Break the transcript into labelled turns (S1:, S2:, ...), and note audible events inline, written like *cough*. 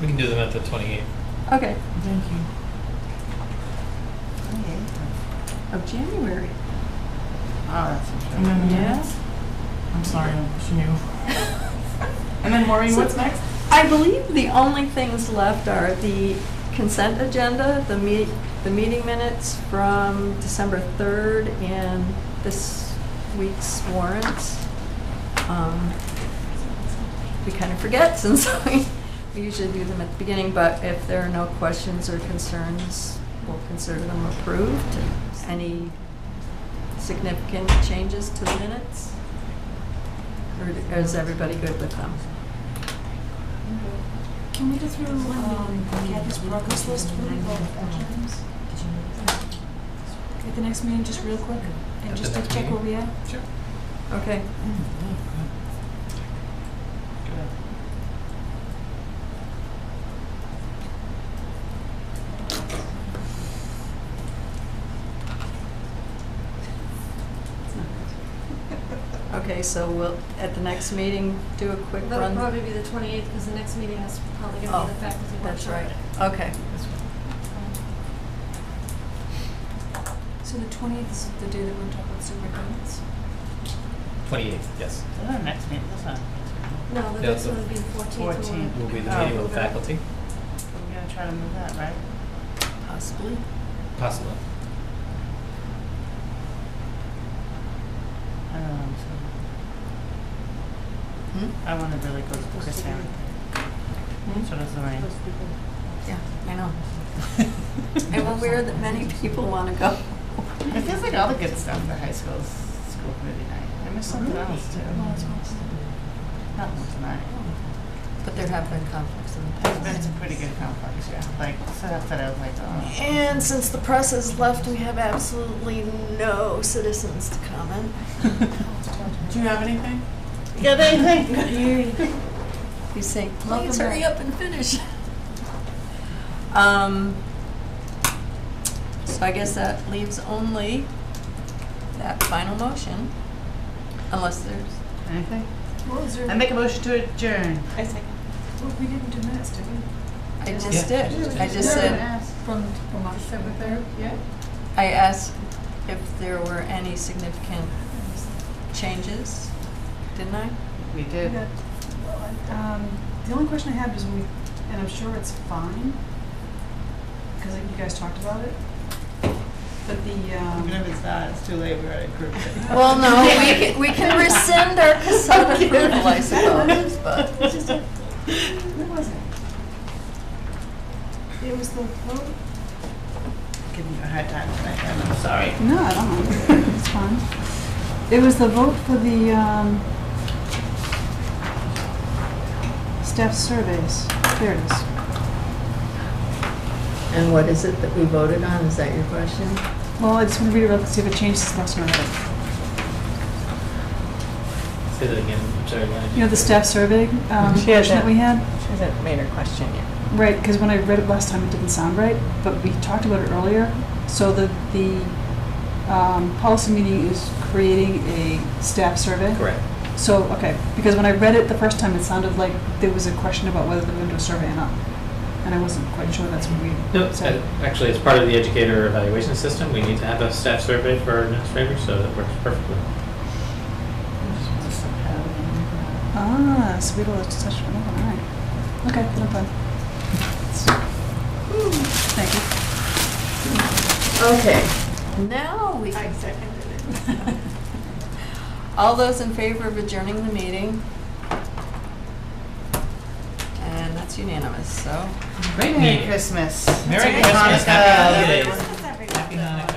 S1: We can do them at the 28th.
S2: Okay,
S3: Thank you.
S4: Okay.
S2: of January.
S4: Oh, that's for
S3: And
S4: sure.
S3: then the
S2: Yeah.
S3: minutes? I'm sorry, she
S4: *laughs*
S3: knew. And then Maureen,
S2: So-
S3: what's next?
S2: I believe the only things left are the consent agenda, the meet, the meeting minutes from December 3rd, and this week's warrants. Um, We kind of forget since *laughs* we, we usually do them at the beginning, but if there are no questions or concerns, we'll consider them approved. Any significant changes to the minutes? Or is everybody good with them?
S5: Can we go through um, Kathy's progress list for the vote items? At the next meeting, just real quick,
S1: At the
S5: and just to
S1: next
S5: check where
S1: meeting?
S5: we are?
S1: Sure.
S2: Okay. Okay, so we'll, at the next meeting, do a quick
S6: That'll
S2: run.
S6: probably be the 28th, because the next meeting is probably going
S2: Oh,
S6: to be the faculty workshop.
S2: That's right, okay.
S5: So the twentieth is the day that we're talking about superintendents?
S1: 28th, yes.
S4: That's our next meeting, that's not. We're
S6: No, the
S1: Yeah,
S6: next
S1: so-
S6: one will be the 14th. when we're-
S4: 14th.
S1: Will be the
S4: Oh.
S1: meeting with the faculty,
S4: gonna try to move that, right?
S2: Possibly.
S1: possibly.
S4: I don't know, I'm so,
S3: Hmm?
S4: I wanna really go to Chris Aaron. So does
S3: *laughs*
S4: Lorraine.
S2: Hmm? Yeah, I know. I aware that many people want to go.
S4: It feels like all the good stuff the high school's school committee night. I missed something else too. Not one tonight.
S2: But there have been conflicts in the
S3: Oh,
S4: There's been some pretty good complex, yeah, like stuff that I was like, oh.
S2: And since the press has left, we have absolutely no citizens to comment.
S3: *laughs* Do you have anything?
S4: Yeah, they
S2: *laughs*
S4: think.
S2: You say,
S5: Welcome
S2: please hurry
S5: back."
S2: up and finish. Um, so I guess that leaves only that final motion, unless there's,
S4: Anything?
S5: Well, is there,
S4: I make a motion to adjourn.
S5: well, we didn't do minutes, did we?
S2: I just
S1: Yeah.
S2: did. I just said,
S3: From, from December third, yeah?
S2: I asked if there were any significant changes, didn't I?
S4: We did.
S7: that, well, um, the only question I had was when we, and I'm sure it's fine, because you guys talked about it, but the,
S4: Even
S7: um,
S4: if it's not, it's too late, we already approved it. *laughs*
S2: Well, *laughs* no, we can, we can rescind our cassette approval, I suppose, but,
S7: where was it? It was the vote?
S4: Giving you a hard time tonight, and I'm sorry.
S7: No, I don't know, *laughs* it's fine. It was the vote for the, um, staff surveys, there it is.
S8: And what is it that we voted on? Is that your question?
S7: Well, I just want to read it, let's see if it changes the next one.
S1: Say that again, I'm sorry, Lynn.
S7: You know, the staff survey um,
S8: She had
S7: question that
S8: that.
S7: we had?
S8: She hasn't made her question yet.
S7: Right, because when I read it last time, it didn't sound right, but we talked about it earlier. So the, the um, policy meeting is creating a staff survey?
S1: Correct.
S7: So, okay, because when I read it the first time, it sounded like there was a question about whether they're going to do a survey or not. And I wasn't quite sure that's what
S1: No,
S7: we
S1: uh,
S7: said.
S1: actually, as part of the educator evaluation system, we need to have a staff survey for our administrators, so that works perfectly.
S7: Ah, so we don't have to touch on that one, all right. Okay, no
S1: *laughs*
S7: problem. Thank you.
S2: okay, now we can. All those in favor of adjourning the meeting? And that's unanimous, so.
S4: Merry Christmas.
S1: Merry
S4: Happy
S1: Christmas, happy holidays.
S4: Hanukkah. everyone.
S1: Happy Hanukkah.